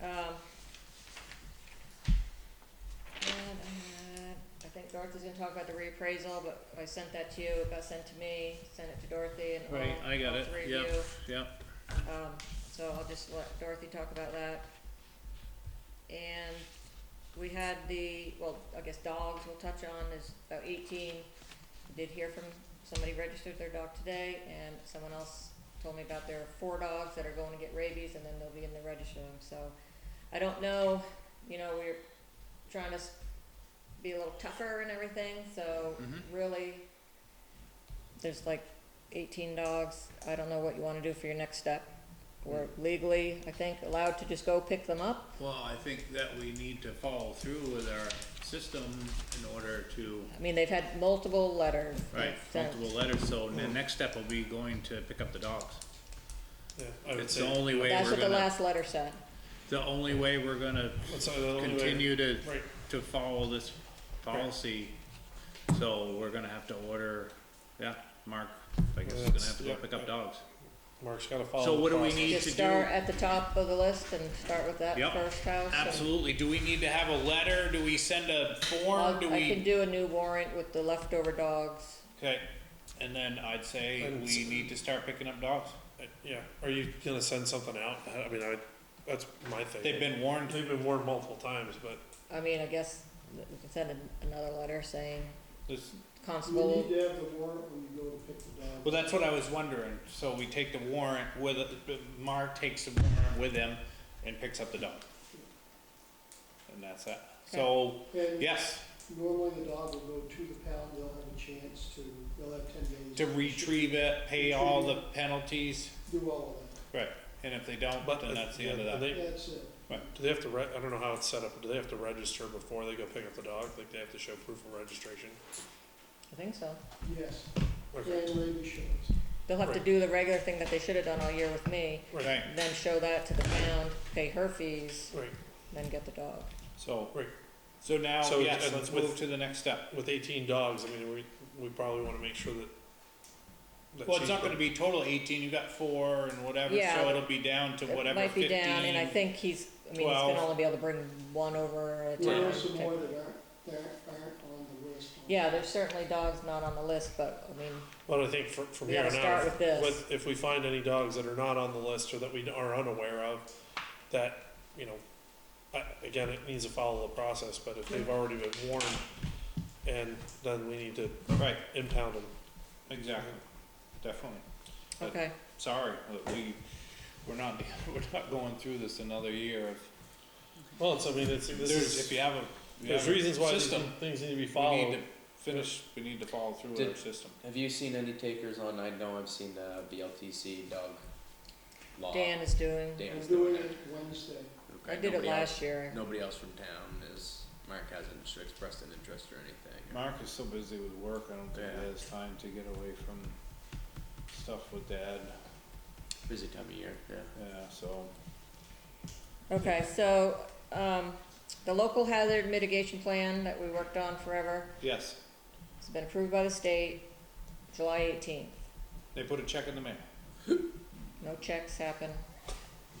Um, and I had- I think Dorothy's gonna talk about the reappraisal, but I sent that to you, it got sent to me, sent it to Dorothy and all, Right, I got all it, three of you. yep. Yep, Um, so I'll just let Dorothy talk about that. And we had the, well, I guess dogs we'll touch on, is about eighteen. Did hear from, somebody registered their dog today, and someone else told me about there are four dogs that are going to get rabies, and then they'll be in the registering, so. I don't know, you know, we're trying to s- be a little tougher and everything, so Mhm. really, there's like eighteen dogs, I don't know what you wanna do for your next step. We're legally, I think, allowed to just go pick them up, well, I think that we need to follow through with our system in order to, I mean, they've had multiple letters. right, they've sent. multiple letters, so the next step will be going to pick up the dogs. Yeah, I would It's the say, only way That's we're what the gonna, last letter said, the only way we're gonna that's the only way- continue to, Right, to follow this policy. So we're gonna have to order, yeah, Mark, I guess is gonna have to go That's- pick up dogs. Mark's gotta follow. So the what do we process. need just to start do? at the top of the list and start with that Yep, first house. and- Absolutely, do we need to have a letter, do we send a form, I'll- do I can we? do a new warrant with the leftover dogs, Okay, and then I'd say And we s- need to start picking up dogs. Yeah, are you gonna send something out? I mean, I, that's my thing. They've been warned, They've been warned multiple times, but I mean, I guess we can send an- another letter saying this- You constable. need to have the warrant when you go to pick the dog. well, that's what I was wondering, so we take the warrant with, Mark takes the warrant with him and picks up the dog. And that's that, so, And yes, normally the dog will go to the pound, they'll have a chance to, they'll have ten days. to retrieve it, pay all the penalties, Do all of right, and if they don't, But then if- that's the end of and that. they- that, that's it. do they have to re, I don't know how it's set up, but do they have to register before they go pick up the dog? Like, they have to show proof of registration? I think so. Yes, Okay, and rabies shows. They'll have to Right. do the regular thing that they should have done all year with me, right, Right, then show that to the town, pay her fees, right. then get the dog. so, Right. so now, So, yes, and let's with- move to the next step. With eighteen dogs, I mean, we, we probably wanna make sure that. that Well, it's she's- not gonna be total eighteen, you got four and whatever, so Yeah. it'll be down to It whatever might be fifteen. down, and I think he's, I mean, he's gonna 12. only be able to bring one over at a There are time. some type- more that aren't, that aren't on the list. Yeah, there's certainly dogs not on the list, but, I mean, But I think from, from We here on gotta start out, with this. with, if we find any dogs that are not on the list or that we are unaware of, that, you know, I, again, it needs to follow the process, but if they've already been warned, and then we need to Right, impound them. exactly, definitely. But okay, Sorry, that we, we're not, we're not going through this another year. Well, it's, I mean, it's, this There's, if is, you have a, you there's have a reasons why these system, things need to be we need followed. to finish, we need to follow through with Did- our system. Have you seen any takers on? I know I've seen uh, the BLTC dog uh, law. Dan is doing, Dan's I'm doing it. it Wednesday. Okay, I did it nobody last year. Else, nobody else from town is. Mark hasn't sh- expressed an interest or anything. Mark is so busy with work, I don't think Yeah. he has time to get away from stuff with dad, Busy time of year. Yeah. yeah, so. Okay, so, um, the local hazard mitigation plan that we worked on forever, Yes, it's been approved by the state, July eighteenth. they put a check in the mail. No checks happen.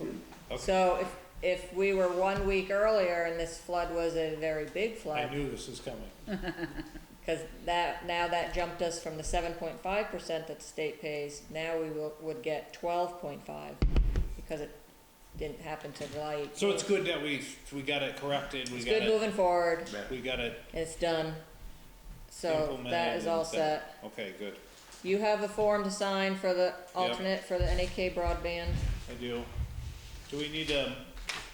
Okay. So if, if we were one week earlier and this flood was a very big I flood, knew this was coming. cause that, now that jumped us from the seven point five percent that the state pays, now we will, would get twelve point five, because it didn't happen till July eighteenth. So it's good that we, we got it corrected, we It's got good it, moving forward, Yeah. we got it it's done, so implemented. that is all and set. Okay, good, You have a form to sign for the alternate for the NAK broadband. I do. Do we need to,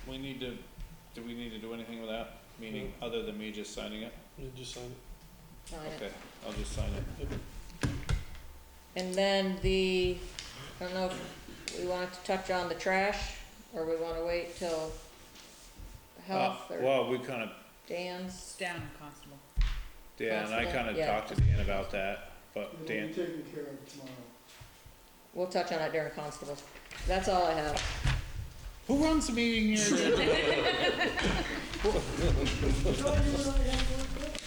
we need to, do we need to do anything with that, meaning Hmm. other than me just signing it? You just sign Sign it. Okay, I'll just sign it. it. And then the, I don't know if we want to touch on the trash, or we wanna wait till health Uh, or Well, we kinda, Dan's. Down, Constable. Dan, I Possible, kinda yeah. Mm-hmm. talked to Dan about that, but It'll be Dan, taken care of tomorrow. We'll touch on it during constables. That's all I have. who runs the meeting here?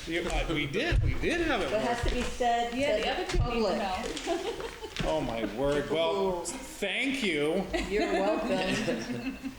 You- I- uh, We did, we did have What it, has to be said, Yeah, the said other two need public. to know. oh my word, well, thank you. You're welcome.